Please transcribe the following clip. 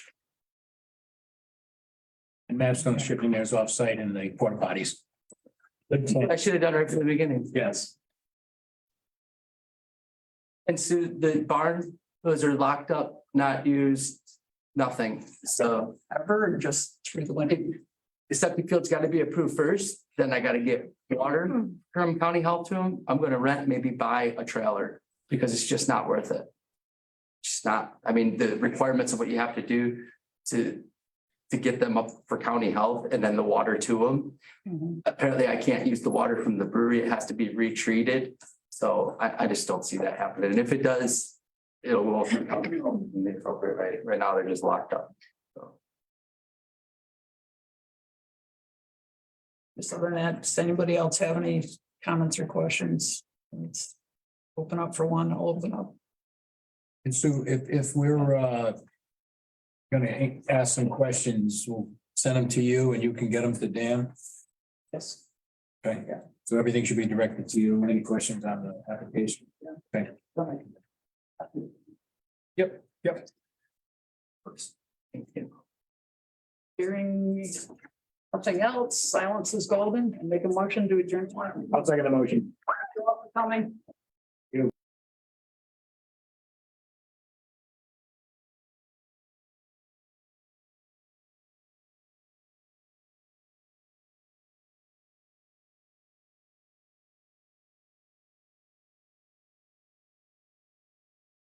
Madstone stripping theirs offsite in the porta potties. I should have done it right from the beginning. Yes, And so the barn, those are locked up, not used, nothing. So ever, just through the window. the septic field's got to be approved first, then I got to get water, Durham County help to them. I'm going to rent, maybe buy a trailer because it's just not worth it. Just not, I mean, the requirements of what you have to do to, to get them up for county health and then the water to them. Mhm. Apparently I can't use the water from the brewery. It has to be retreated. So I, I just don't see that happening. And if it does, it'll go through county health in the appropriate way. Right now, they're just locked up. So then that, does anybody else have any comments or questions? Let's open up for one, I'll open up. and so if, if we're, uh, gonna ask some questions, we'll send them to you and you can get them to Dan. Yes. Okay, so everything should be directed to you. Any questions on the application? Yep, yep. Thank you. Hearing something else, silence is golden, and make a motion to adjourn. I'll second the motion. Coming.